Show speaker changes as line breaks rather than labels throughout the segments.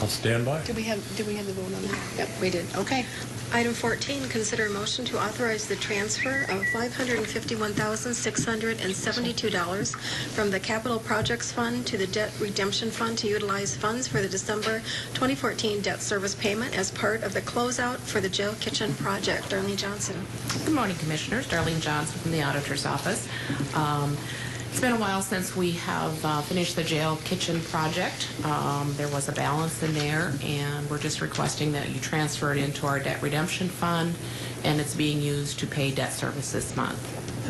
I'll stand by.
Did Um, we have, did we have the vote on that? Yep, we did. Okay.
Item 14, consider a motion to authorize the transfer of $551,672 from the Capital Projects Fund to the Debt Redemption Fund to utilize funds for the December 2014 debt service payment as part of the closeout for the jail kitchen project. Darlene Johnson.
Good morning, Commissioners. Darlene Johnson from the Auditor's Office. Um, It's been a while since we have uh, finished the jail kitchen project. Um, There was a balance in there, and we're just requesting that you transfer it into our debt redemption fund, and it's being used to pay debt service this month.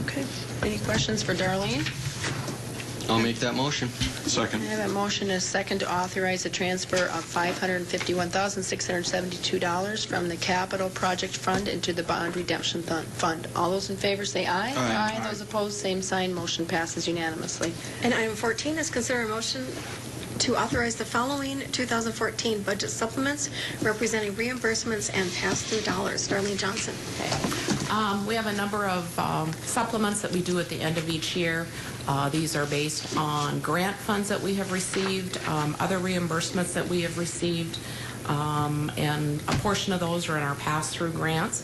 Okay. Any questions for Darlene?
I'll make that motion.
I have a motion and a second to authorize the transfer of $551,672 from the Capital Project Fund into the Bond Redemption Thun- Fund. All those in favor say aye.
Aye.
Those opposed, same sign. Motion passes unanimously.
And item 14 is consider a motion to authorize the following 2014 budget supplements representing reimbursements and pass-through dollars. Darlene Johnson.
Um, We have a number of um, supplements that we do at the end of each year. Uh, These are based on grant funds that we have received, um, other reimbursements that we have received, um, and a portion of those are in our pass-through grants.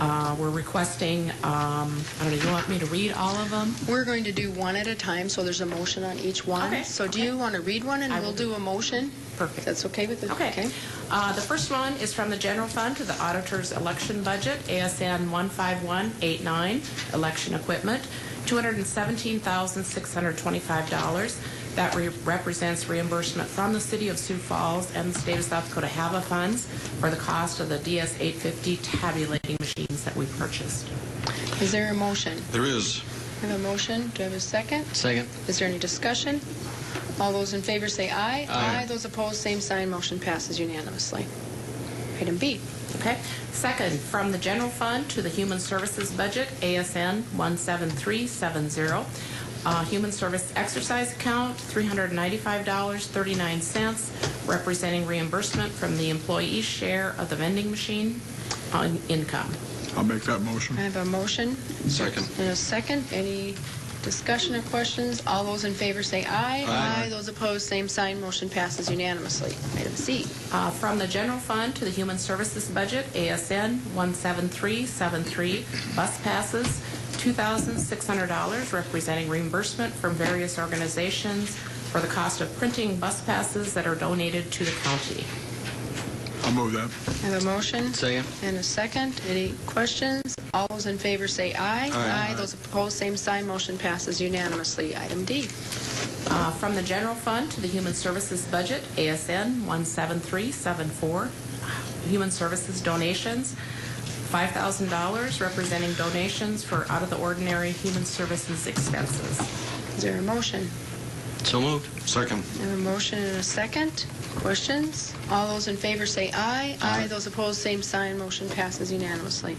Uh, We're requesting, um, I don't know, you want me to read all of them?
We're going to do one at a time, so there's a motion on each one.
Okay,
So do
okay.
you want to read one, and
I
we'll
will
do a motion?
Perfect.
That's okay with the...
Okay. Uh, The first one is from the general fund to the auditor's election budget, ASN 15189, election equipment, $217,625. That re- represents reimbursement from the city of Sioux Falls and the state of South Dakota HAVA funds for the cost of the DS 850 tabulating machines that we purchased.
Is there a motion?
There is.
I have a motion. Do I have a second?
Second.
Is there any discussion? All those in favor say aye.
Aye.
Those opposed, same sign. Motion passes unanimously. Item B.
Okay. Second, from the general fund to the human services budget, ASN 17370. Uh, Human service exercise account, $395.39, representing reimbursement from the employee's share of the vending machine on income.
I'll make that motion.
I have a motion
Second.
and a second. Any discussion or questions? All those in favor say aye.
Aye.
Those opposed, same sign. Motion passes unanimously. Item C.
Uh, From the general fund to the human services budget, ASN 17373, bus passes, $2,600, representing reimbursement from various organizations for the cost of printing bus passes that are donated to the county.
I'll move that.
I have a motion
Second.
and a second. Any questions? All those in favor say aye.
Aye.
Those opposed, same sign. Motion passes unanimously. Item D.
Uh, From the general fund to the human services budget, ASN 17374, human services donations, $5,000, representing donations for out-of-the-ordinary human services expenses.
Is there a motion?
So moved. Second.
I have a motion and a second. Questions? All those in favor say aye. Aye. Those opposed, same sign. Motion passes unanimously.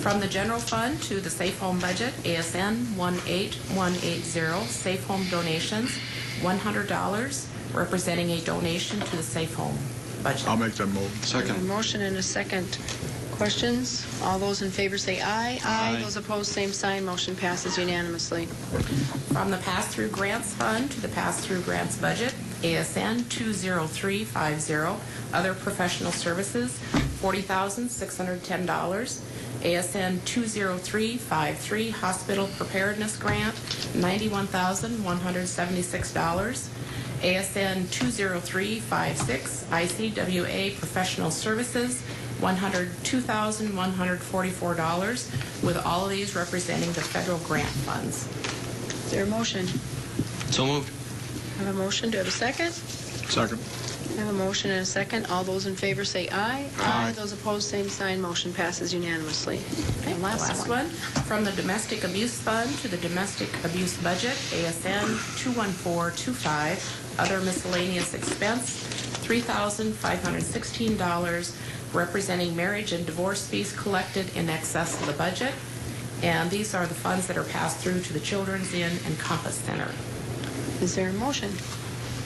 From the general fund to the safe home budget, ASN 18180, safe home donations, $100, representing a donation to the safe home budget.
I'll make that move.
I have a
Second.
motion and a second. Questions? All those in favor say aye.
Aye.
Those opposed, same sign. Motion passes unanimously.
From the pass-through grants fund to the pass-through grants budget, ASN 20350, other professional services, $40,610. ASN 20353, hospital preparedness grant, $91,176. ASN 20356, ICWA professional services, $102,144, with all of these representing the federal grant funds.
Is there a motion?
So moved.
I have a motion. Do I have a second?
Second.
I have a motion and a second. All those in favor say aye.
Aye.
Those opposed, same sign. Motion passes unanimously.
Okay,
And
the last one, from the Domestic Abuse Fund to the Domestic Abuse Budget, ASN 21425, other miscellaneous expense, $3,516, representing marriage and divorce fees collected in excess of the budget. And these are the funds that are passed through to the Children's Inn and Compass Center.
Is there a motion?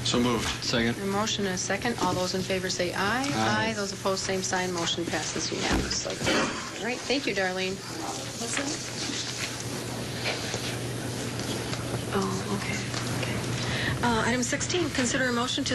So moved. Second.
A motion and a second. All those in favor say aye.
Aye.
Those opposed, same sign. Motion passes unanimously. All right, thank you, Darlene.
Oh, okay. okay. Uh, Item 16, consider a motion to